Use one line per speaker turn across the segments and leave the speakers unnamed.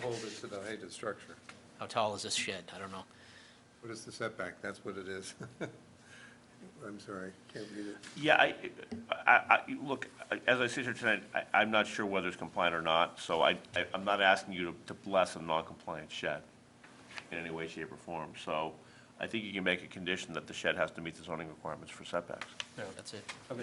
How hold it to the height of the structure?
How tall is this shed? I don't know.
What is the setback? That's what it is. I'm sorry, can't read it.
Yeah, I, I, I, look, as I sit here tonight, I, I'm not sure whether it's compliant or not, so I, I- I'm not asking you to, to bless a non-compliant shed in any way, shape, or form, so I think you can make a condition that the shed has to meet the zoning requirements for setbacks.
That's it.
That-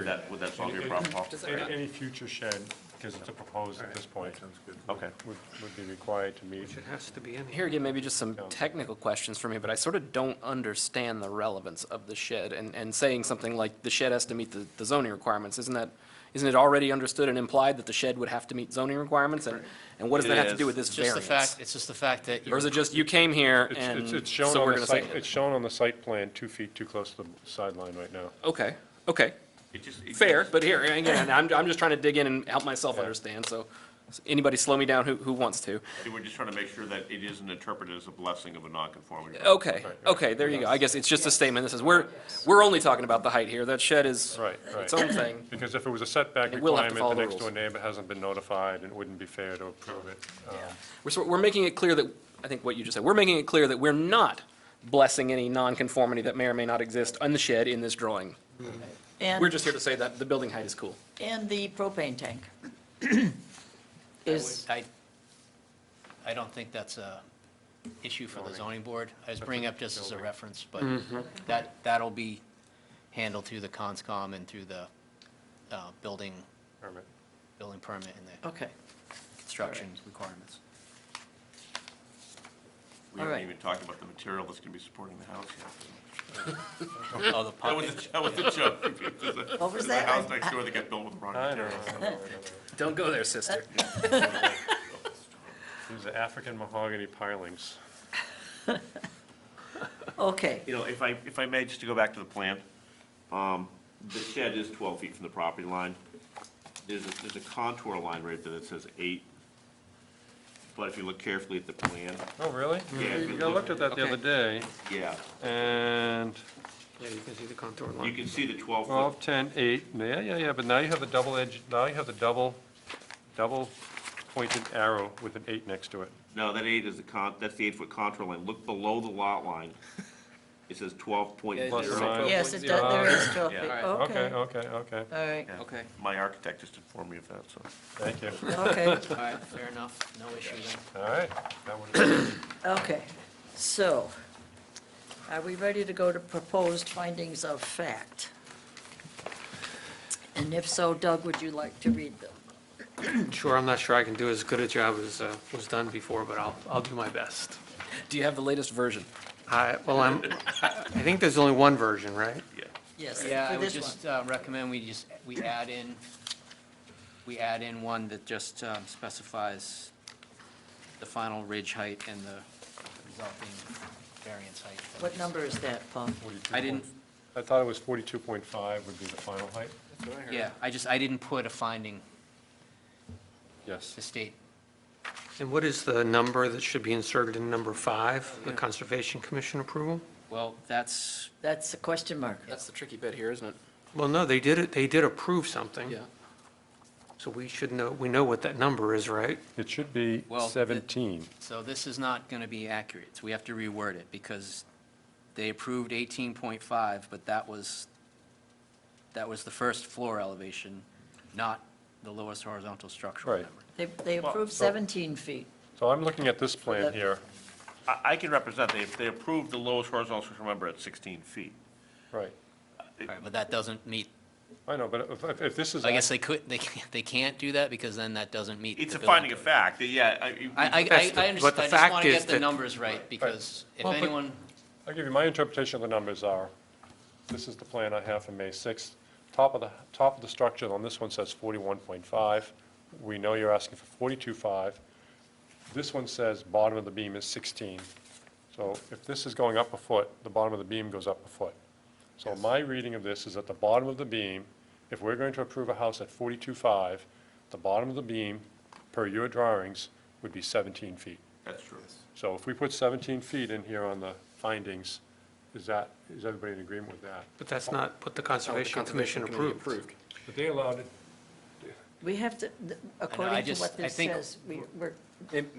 Would that, would that solve your problem, Paul?
Any any future shed, because it's a proposed at this point,
Sounds good.
Okay.
would, would be required to meet.
has to be in
Here again, maybe just some
Yeah.
technical questions for me, but I sort of don't understand the relevance of the shed, and, and saying something like, the shed has to meet the the zoning requirements, isn't that, isn't it already understood and implied that the shed would have to meet zoning requirements, and, and what does
It
that have to
is.
do with this
Just the fact,
variance?
it's just the fact that
Or
you're,
is it just, you came here
It's-
and,
It's, it's shown
so we're
on the
gonna
site,
say?
it's shown on the site plan, two feet too close to the sideline right now.
Okay, okay,
It just- it-
fair, but here, again, I'm, I'm just trying to dig in and help myself understand, so, anybody slow me down who, who wants to.
We're just trying to make sure that it isn't interpreted as a blessing of a non-conformity.
Okay,
Right, right.
okay, there you go. I guess it's just a statement that says, we're, we're only talking about the height here. That shed is
Right,
its
right.
own thing.
Because if it was a setback
It will have to
requirement,
follow
the
the
next door
rules.
neighbor hasn't been notified, and it wouldn't be fair to approve it. Um,
We're, sort- we're making it clear that, I think what you just said, we're making it clear that we're not blessing any nonconformity that may or may not exist on the shed in this drawing. We're
And,
just here to say that the building height is cool.
and the propane tank is,
I, I don't think that's a issue for the zoning board. I was bringing up just as a reference, but that, that'll be handled through the conscom and through the, uh, building,
permit.
building permit and the
okay.
construction requirements.
We
All
haven't
right.
even talked about the material that's gonna be supporting the house yet.
Oh, the
That
pump,
was a, that was a joke. There's a-
What was
there's a
that?
house
I-
next door that got built with the wrong
I
material.
don't know.
Don't go there, sister.
Uh,
These are African mahogany pilings.
Okay,
You know, if I, if I may, just to go back to the plan, um, the shed is twelve feet from the property line. There's a, there's a contour line right there that says eight. But if you look carefully at the plan,
Oh, really?
Yeah.
I looked at that the other day,
yeah,
and
Yeah, you can see the contour
you
line.
can see the twelve foot.
Twelve, ten, eight, yeah, yeah, yeah, but now you have the double edge, now you have the double, double pointed arrow with an eight next to it.
No, that eight is the con, that's the eight foot contour line. Look below the lot line. It says twelve point
Yeah,
Plus
it's
zero.
nine.
like-
yes, it does, there is 12 feet,
Yeah.
okay,
Okay, okay, okay,
all right,
Yeah.
Okay.
My architect just informed me of that, so.
thank you.
okay,
all right, fair enough, no issue then.
All right, that would,
okay. So, are we ready to go to proposed findings of fact? And if so, Doug, would you like to read them?
Sure, I'm not sure I can do as good a job as uh, was done before, but I'll, I'll do my best.
Do you have the latest version?
I, well, I'm, I think there's only one version, right?
Yes,
Yeah, I
for
would
this one.
just uh, recommend we just, we add in, we add in one that just um, specifies the final ridge height and the resulting variance height.
What number is that, Paul?
I didn't,
I thought it was forty-two point five would be the final height,
yeah, I just, I didn't put a finding
yes.
to state.
And what is the number that should be inserted in number five, the Conservation Commission approval?
Well, that's,
That's a question mark.
That's the tricky bit here, isn't it?
Well, no, they did it, they did approve something.
Yeah.
So we should know, we know what that number is, right?
It should be
Well, the-
seventeen.
so this is not going to be accurate, so we have to reword it, because they approved 18.5, but that was, that was the first floor elevation, not the lowest horizontal structural
Right.
number.
They, they approved 17 feet.
So I'm looking at this plan
that-
here,
I, I can represent, they, they approved the lowest horizontal structure number at sixteen feet.
right,
All right, but that doesn't meet,
I know, but if- if, if this is.
I guess they could, they, can't- they can't do that because then that doesn't meet.
It's
the
a
building
finding of
code.
fact, yeah. I-
I, I,
That's the-
I understand,
but the
I just want
fact
to
is
get the
that-
numbers right because if
Well, but-
anyone,
I'll give you, my interpretation of the numbers are, this is the plan I have for May 6th. Top of the, top of the structure on this one says 41.5. We know you're asking for 42.5. This one says bottom of the beam is 16. So if this is going up a foot, the bottom of the beam goes up a foot. So my reading of this is at the bottom of the beam, if we're going to approve a house at 42.5, the bottom of the beam, per your drawings, would be 17 feet.
That's true.
So if we put 17 feet in here on the findings, is that, is everybody in agreement with that?
But that's not what the Conservation Commission approved.
But they allowed it,
We have to,
I
according to
just-
what
I
this
think
says, we- we're
It-